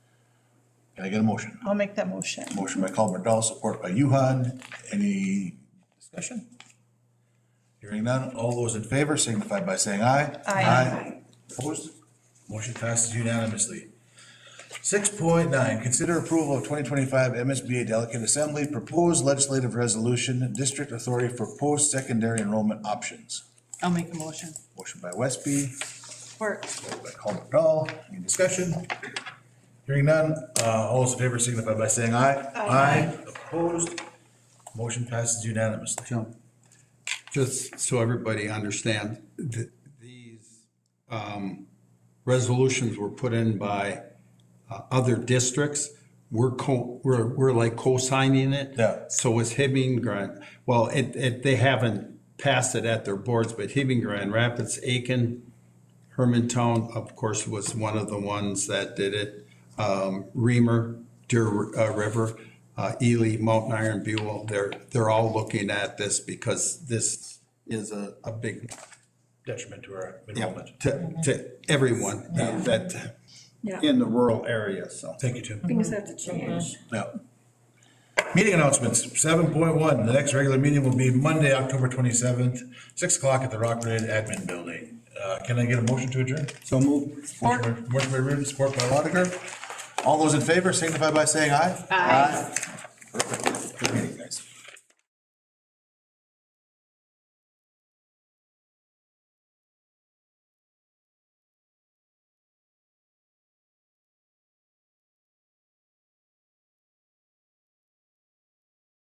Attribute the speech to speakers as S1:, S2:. S1: Can I get a motion?
S2: I'll make that motion.
S1: Motion by Colbert Dahl, support by Yuhan. Any discussion? Hearing none, all those in favor signify by saying aye.
S2: Aye.
S1: Opposed? Motion passes unanimously. Six point nine, consider approval of twenty twenty-five MSBA Delegate Assembly Proposed Legislative Resolution, District Authority for Post-Secondary Enrollment Options.
S3: I'll make the motion.
S1: Motion by Westby,
S2: Support.
S1: by Colbert Dahl. Any discussion? Hearing none, uh, all those in favor signify by saying aye. Aye. Opposed? Motion passes unanimously.
S4: Jim, just so everybody understands, th- these um, resolutions were put in by uh, other districts. We're co, we're, we're like co-signing it.
S1: Yeah.
S4: So is Hibbing Grand, well, it, it, they haven't passed it at their boards, but Hibbing Grand Rapids, Aiken, Hermantown, of course, was one of the ones that did it. Um, Reamer, Deer uh, River, uh, Ely, Mountain Iron, Buell, they're, they're all looking at this because this is a, a big
S1: Detriment to our
S4: yeah,
S1: enrollment.
S4: to, to everyone that,
S2: Yeah.
S4: in the rural area, so.
S1: Thank you, Tim.
S2: Things have to change.
S1: Yeah. Meeting announcements, seven point one, the next regular meeting will be Monday, October twenty-seventh, six o'clock at the Rock Ridge Admin Building. Uh, can I get a motion to adjourn?
S4: So move.
S1: Motion by- Motion by Reardon, support by Lotiger. All those in favor signify by saying aye. Aye. Perfect.